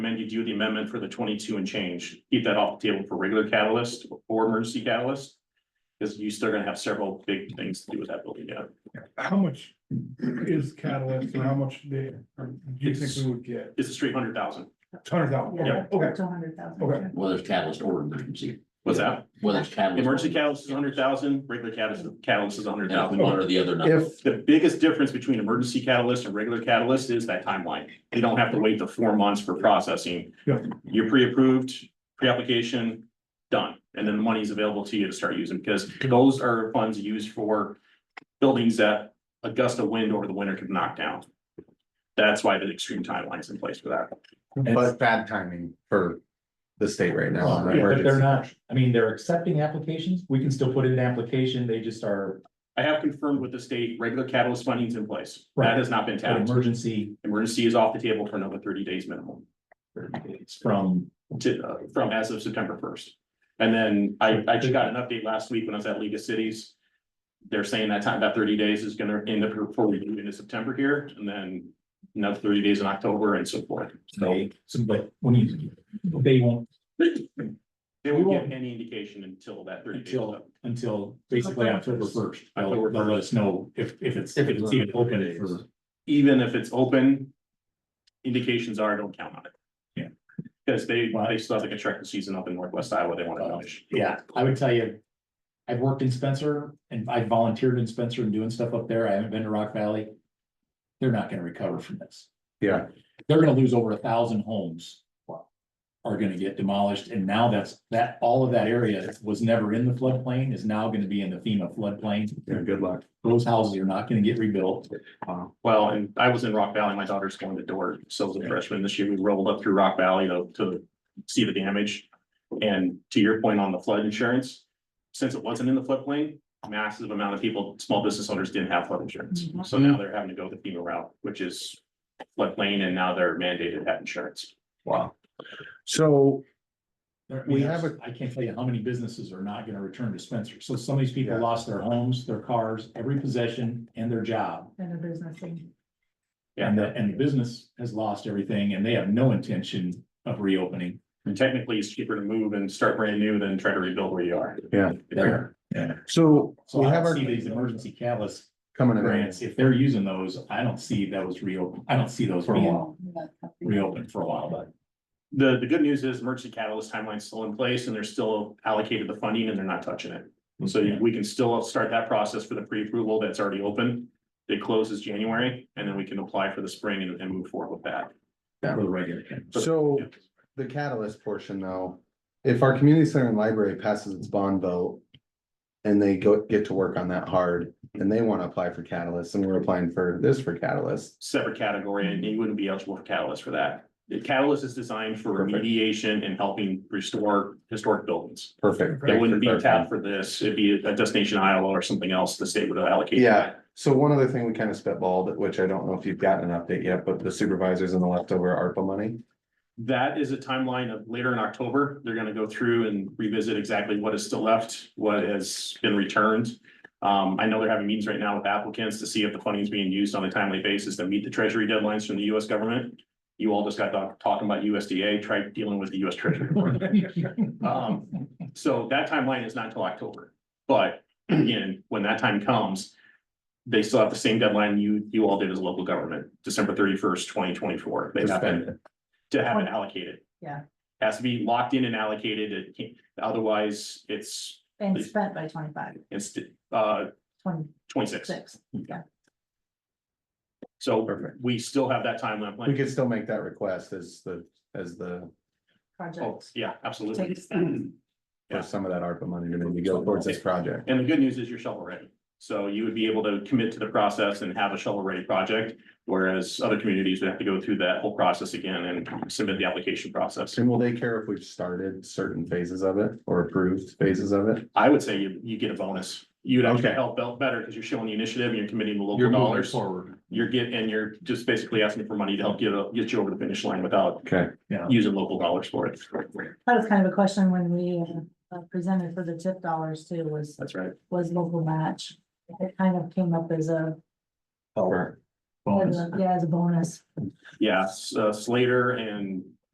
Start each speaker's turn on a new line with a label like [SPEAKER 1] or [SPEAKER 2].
[SPEAKER 1] do the amendment for the twenty-two and change, keep that off the table for regular catalyst or emergency catalyst. Because you still gonna have several big things to do with that building, yeah.
[SPEAKER 2] How much is catalyst or how much they, or do you think we would get?
[SPEAKER 1] It's three hundred thousand.
[SPEAKER 2] It's Hundred thousand, okay,
[SPEAKER 1] Yeah.
[SPEAKER 2] okay,
[SPEAKER 3] Two hundred thousand.
[SPEAKER 2] Okay.
[SPEAKER 4] whether it's catalyst or emergency,
[SPEAKER 1] What's that?
[SPEAKER 4] whether it's catalyst. or-
[SPEAKER 1] Emergency catalyst is hundred thousand, regular catalyst, catalyst is hundred
[SPEAKER 4] Yeah,
[SPEAKER 1] thousand.
[SPEAKER 4] one or the other. not-
[SPEAKER 5] If,
[SPEAKER 1] The biggest difference between emergency catalyst and regular catalyst is that timeline. You don't have to wait the four months for processing.
[SPEAKER 2] Yeah.
[SPEAKER 1] You're pre-approved, pre-application, done, and then the money's available to you to start using, because those are funds used for buildings that a gust of wind over the winter could knock down. That's why the extreme timeline's in place for that.
[SPEAKER 6] It's bad timing for the state right now. on
[SPEAKER 7] Yeah, But they're
[SPEAKER 6] emergency.
[SPEAKER 7] not, I mean, they're accepting applications, we can still put in an application, they just are,
[SPEAKER 1] I have confirmed with the state, regular catalyst funding's in place. That
[SPEAKER 7] Right.
[SPEAKER 1] has not been
[SPEAKER 7] an
[SPEAKER 1] tapped.
[SPEAKER 7] emergency
[SPEAKER 1] Emergency is off the table for another thirty days minimum.
[SPEAKER 7] It's from.
[SPEAKER 1] to, uh, from as of September first. And then I, I just got an update last week when I was at League of Cities. They're saying that time, that thirty days is gonna end up before we move into September here, and then another thirty days in October and so forth. So
[SPEAKER 7] They, so, but when you, they won't
[SPEAKER 1] they won't give any indication until that thirty days. is
[SPEAKER 7] until,
[SPEAKER 1] up.
[SPEAKER 7] until basically October first, they'll, they'll let us know if, if it's, if it's even open for.
[SPEAKER 1] Even if it's open, indications are don't count on it.
[SPEAKER 7] Yeah.
[SPEAKER 1] Because they, they still have the construction season up in Northwest Iowa, they wanna finish.
[SPEAKER 7] Yeah, I would tell you, I've worked in Spencer and I volunteered in Spencer and doing stuff up there. I haven't been to Rock Valley. They're not gonna recover from this.
[SPEAKER 6] Yeah.
[SPEAKER 7] They're gonna lose over a thousand homes. Are gonna get demolished and now that's, that, all of that area was never in the floodplain is now gonna be in the FEMA floodplain.
[SPEAKER 6] Yeah, good luck.
[SPEAKER 7] Those houses are not gonna get rebuilt.
[SPEAKER 1] Well, and I was in Rock Valley, my daughter's going to Dort, so was a freshman this year, we rolled up through Rock Valley to, to see the damage. And to your point on the flood insurance, since it wasn't in the floodplain, massive amount of people, small business owners didn't have flood insurance. So now they're having to go the FEMA route, which is floodplain, and now they're mandated to have insurance.
[SPEAKER 6] Wow. So
[SPEAKER 7] There- I
[SPEAKER 6] We
[SPEAKER 7] mean,
[SPEAKER 6] have
[SPEAKER 7] there's- I can't tell you how many businesses are not gonna return to Spencer. So some of these people
[SPEAKER 6] Yeah.
[SPEAKER 7] lost their homes, their cars, every possession and their job.
[SPEAKER 3] And a business thing.
[SPEAKER 7] And the, and the business has lost everything and they have no intention of reopening.
[SPEAKER 1] And technically, it's cheaper to move and start brand new than try to rebuild where you are.
[SPEAKER 6] Yeah.
[SPEAKER 7] There.
[SPEAKER 6] So
[SPEAKER 7] So
[SPEAKER 6] we
[SPEAKER 7] I
[SPEAKER 6] have
[SPEAKER 7] don't
[SPEAKER 6] our
[SPEAKER 7] see these emergency catalyst
[SPEAKER 6] coming in.
[SPEAKER 7] grants, if they're using those, I don't see those reopened. I don't see those
[SPEAKER 6] For a
[SPEAKER 7] being
[SPEAKER 6] while.
[SPEAKER 7] reopened for a while, but.
[SPEAKER 1] The, the good news is emergency catalyst timeline's still in place and they're still allocated the funding and they're not touching it. So
[SPEAKER 7] Yeah.
[SPEAKER 1] we can still start that process for the pre-approval that's already open. It closes January and then we can apply for the spring and, and move forward with that.
[SPEAKER 7] For the regular. catalyst.
[SPEAKER 6] So the catalyst portion though, if our community center and library passes its bond vote. And they go, get to work on that hard and they want to apply for catalyst and we're applying for this for catalyst.
[SPEAKER 1] Separate category and you wouldn't be eligible for catalyst for that. The catalyst is designed for
[SPEAKER 6] Perfect.
[SPEAKER 1] remediation and helping restore historic buildings.
[SPEAKER 6] Perfect.
[SPEAKER 1] It wouldn't be tapped for this. It'd be a destination Iowa or something else the state would allocate.
[SPEAKER 6] Yeah, so one other thing we kind of spitballed, which I don't know if you've gotten an update yet, but the supervisors and the leftover ARPA money.
[SPEAKER 1] That is a timeline of later in October. They're gonna go through and revisit exactly what is still left, what has been returned. Um, I know they're having meetings right now with applicants to see if the funding is being used on a timely basis to meet the treasury deadlines from the US government. You all just got done talking about USDA, try dealing with the US Treasury. Um, so that timeline is not until October, but again, when that time comes. They still have the same deadline you, you all did as a local government, December thirty-first, twenty twenty-four. They
[SPEAKER 6] To
[SPEAKER 1] have
[SPEAKER 6] spend
[SPEAKER 1] it to have it allocated.
[SPEAKER 3] Yeah.
[SPEAKER 1] Has to be locked in and allocated, it can't, otherwise it's,
[SPEAKER 3] And spent by twenty-five,
[SPEAKER 1] it's, uh,
[SPEAKER 3] twenty-six.
[SPEAKER 1] twenty-six. So
[SPEAKER 6] Perfect.
[SPEAKER 1] we still have that timeline.
[SPEAKER 6] We
[SPEAKER 1] planned.
[SPEAKER 6] could still make that request as the, as the,
[SPEAKER 1] Oh,
[SPEAKER 3] projects.
[SPEAKER 1] yeah, absolutely.
[SPEAKER 3] Takes-
[SPEAKER 1] And Yeah.
[SPEAKER 6] for some of that ARPA money to maybe go towards this project.
[SPEAKER 1] the good news is you're shovel ready. So you would be able to commit to the process and have a shovel ready project. Whereas other communities would have to go through that whole process again and submit the application process.
[SPEAKER 6] And will they care if we've started certain phases of it or approved phases of it?
[SPEAKER 1] I would say you, you get a bonus. You'd actually
[SPEAKER 6] Okay.
[SPEAKER 1] help out better because you're showing the initiative and you're committing the
[SPEAKER 7] You're
[SPEAKER 1] local
[SPEAKER 7] moving
[SPEAKER 1] dollars.
[SPEAKER 7] forward.
[SPEAKER 1] You're getting, and you're just basically asking for money to help get, uh, get you over the finish line without
[SPEAKER 6] Okay.
[SPEAKER 1] using local dollars for it.
[SPEAKER 3] That was kind of a question when we uh, presented for the tip dollars too, was,
[SPEAKER 1] That's right.
[SPEAKER 3] was local match. It kind of came up as a,
[SPEAKER 6] Or-
[SPEAKER 3] as a- yeah, as a bonus.
[SPEAKER 1] Yeah, S- uh, Slater and